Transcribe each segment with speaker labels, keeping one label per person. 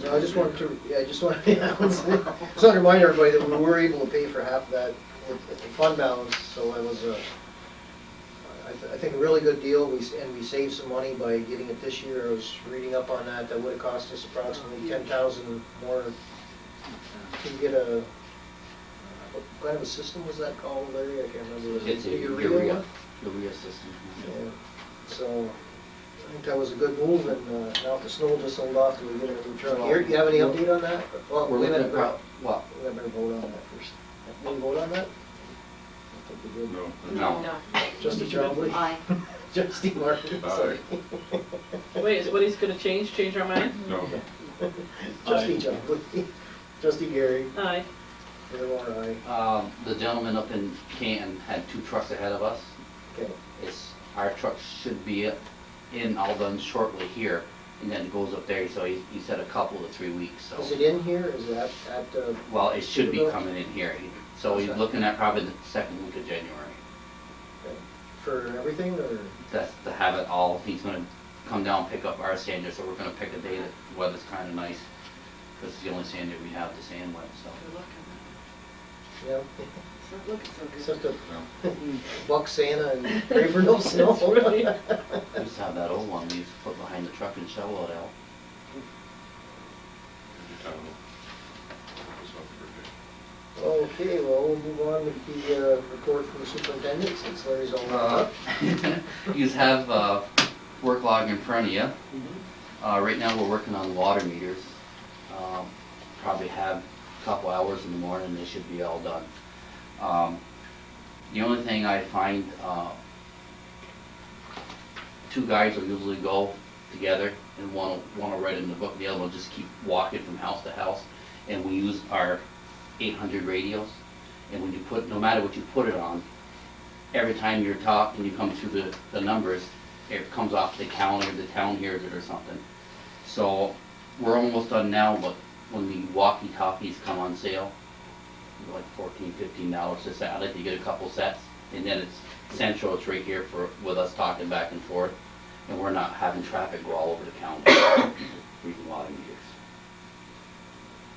Speaker 1: So I just wanted to, yeah, I just wanted, I just wanted to remind everybody that we were able to pay for half of that with with the fund balance, so it was a, I th- I think a really good deal, we, s- and we saved some money by getting it this year. I was reading up on that, that would've cost us approximately ten thousand more to get a, uh, what kind of a system was that called, Larry? I can't remember. Was it
Speaker 2: It's a
Speaker 1: urea one?
Speaker 2: urea, urea system.
Speaker 1: Yeah. So, I think that was a good move, and uh, now the snow just sold off, till we get a new truck.
Speaker 2: Well-
Speaker 1: Here, you have any update on that? Well,
Speaker 2: We're
Speaker 1: wait a
Speaker 2: looking at,
Speaker 1: minute,
Speaker 2: prob- well,
Speaker 1: we better vote on that first. Did we vote on that? I think we did.
Speaker 3: No.
Speaker 2: no,
Speaker 1: Trustee Trombley?
Speaker 4: Aye.
Speaker 1: Trustee Martin?
Speaker 3: Aye.
Speaker 1: sorry.
Speaker 5: Wait, is what he's gonna change, change our mind?
Speaker 3: No,
Speaker 1: Trustee Trombley? Trustee Gary?
Speaker 5: Aye.
Speaker 1: Mayor Moore, aye.
Speaker 2: um, the gentleman up in Canton had two trucks ahead of us.
Speaker 1: Okay,
Speaker 2: It's, our truck should be in all done shortly here, and then it goes up there, so he, he said a couple to three weeks, so.
Speaker 1: is it in here, is it at, at, uh,
Speaker 2: Well, it should be coming in here, so he's looking at probably the second week of January.
Speaker 1: for everything, or?
Speaker 2: That's to have it all, he's gonna come down, pick up our sander, so we're gonna pick a day that the weather's kinda nice, cause it's the only sander we have to sand with, so.
Speaker 1: Yeah,
Speaker 4: It's not looking so good.
Speaker 1: except to
Speaker 3: no.
Speaker 1: buck Santa and pray for no snow.
Speaker 5: It's really-
Speaker 2: We used to have that old one we used to put behind the truck and shovel it out.
Speaker 3: I don't know. It's up for
Speaker 1: Okay, well, we'll move on with the uh, report from the superintendent since Larry's all wrapped
Speaker 2: Uh,
Speaker 1: up.
Speaker 2: You have uh, work log in front of you. Uh, Right now, we're working on water meters. Um, Probably have a couple hours in the morning, they should be all done. Um, The only thing I find, uh, two guys will usually go together and one will, one will write in the book, the other will just keep walking from house to house. And we use our 800 radios. And when you put, no matter what you put it on, every time you're taught and you come through the, the numbers, it comes off the calendar, the town hears it or something. So, we're almost done now, but when the walkie-talkies come on sale, they're like fourteen, fifteen dollars a set, I'd like to get a couple sets, and then it's central, it's right here for, with us talking back and forth, and we're not having traffic go all over the county, reading water meters.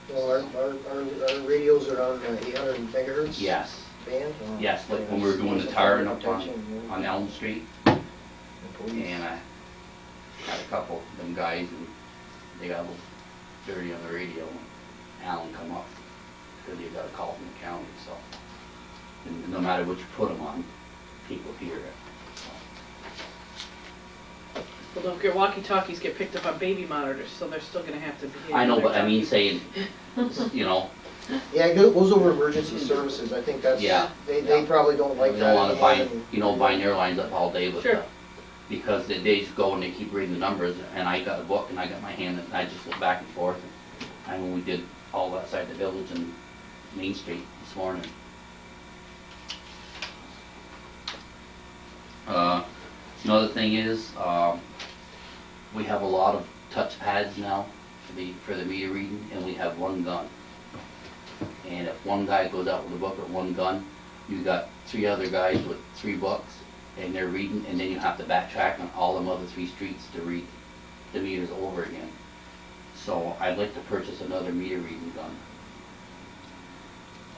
Speaker 1: Well, our, our, our our radios are on uh, 800 megahertz.
Speaker 2: Yes,
Speaker 1: Band. uh,
Speaker 2: yes, like when
Speaker 1: yeah,
Speaker 2: we were doing the tire and up
Speaker 1: protection,
Speaker 2: on,
Speaker 1: yeah.
Speaker 2: on Elm Street,
Speaker 1: And police.
Speaker 2: And I had a couple of them guys and they got a little dirty on the radio and Alan come up because he got a call from the county, so. And no matter what you put them on, people hear it. so.
Speaker 5: Well, don't get, walkie-talkies get picked up on baby monitors, so they're still gonna have to be.
Speaker 2: I know, but I mean saying, you know,
Speaker 1: Yeah, it goes goes over emergency services. I think that's,
Speaker 2: Yeah,
Speaker 1: they, they
Speaker 2: yeah.
Speaker 1: probably don't
Speaker 2: we
Speaker 1: like that.
Speaker 2: don't wanna
Speaker 1: anymore
Speaker 2: bind,
Speaker 1: than-
Speaker 2: you know, bind their lines up all day with
Speaker 5: Sure.
Speaker 2: the. Because they, they just go and they keep reading the numbers and I got a book and I got my hand and I just look back and forth. And when we did all outside the village and Main Street this morning. Uh, Another thing is, um, we have a lot of touch pads now for the, for the meter reading, and we have one gun. And if one guy goes out with a book or one gun, you got three other guys with three books, and they're reading, and then you have to backtrack on all them other three streets to read the meters over again. So I'd like to purchase another meter reading gun.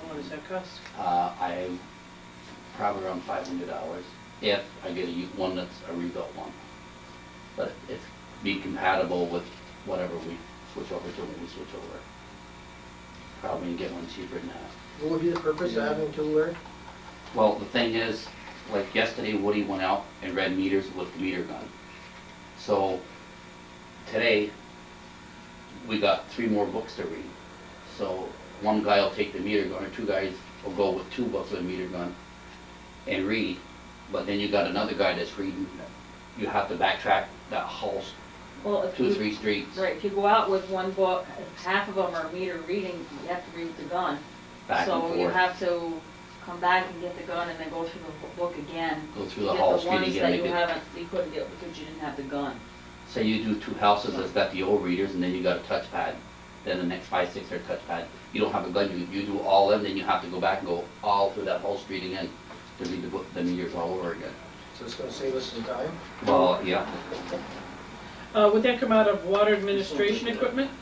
Speaker 5: What does that cost?
Speaker 2: Uh, I, probably around five hundred dollars, if I get a, u- one that's a rebuilt one. But it's be compatible with whatever we switch over to when we switch over. Probably get one cheaper than that.
Speaker 1: What would be the purpose of having two, Larry?
Speaker 2: Well, the thing is, like yesterday, Woody went out and read meters with the meter gun. So today, we got three more books to read. So one guy will take the meter gun, or two guys will go with two books with a meter gun and read. But then you got another guy that's reading. You have to backtrack that whole s-
Speaker 6: Well, if
Speaker 2: two,
Speaker 6: you,
Speaker 2: three streets.
Speaker 6: Mm-hmm. right, if you go out with one book, half of them are meter reading, you have to read with the gun.
Speaker 2: Back and
Speaker 6: So you
Speaker 2: forth.
Speaker 6: have to come back and get the gun and then go through the whole book again.
Speaker 2: Go
Speaker 6: to
Speaker 2: through the whole street
Speaker 6: Get the
Speaker 2: again.
Speaker 6: ones that you
Speaker 2: Make it-
Speaker 6: haven't, you couldn't get because you didn't have the gun.
Speaker 2: Say you do two houses that's got the old readers and then you got a touchpad, then the next five, six are touchpad. You don't have a gun, you, you do all of them, then you have to go back and go all through that whole street again to read the book, the meters all over again.
Speaker 1: So it's gonna save us some time?
Speaker 2: Well, yeah,
Speaker 5: Uh, would that come out of water administration equipment?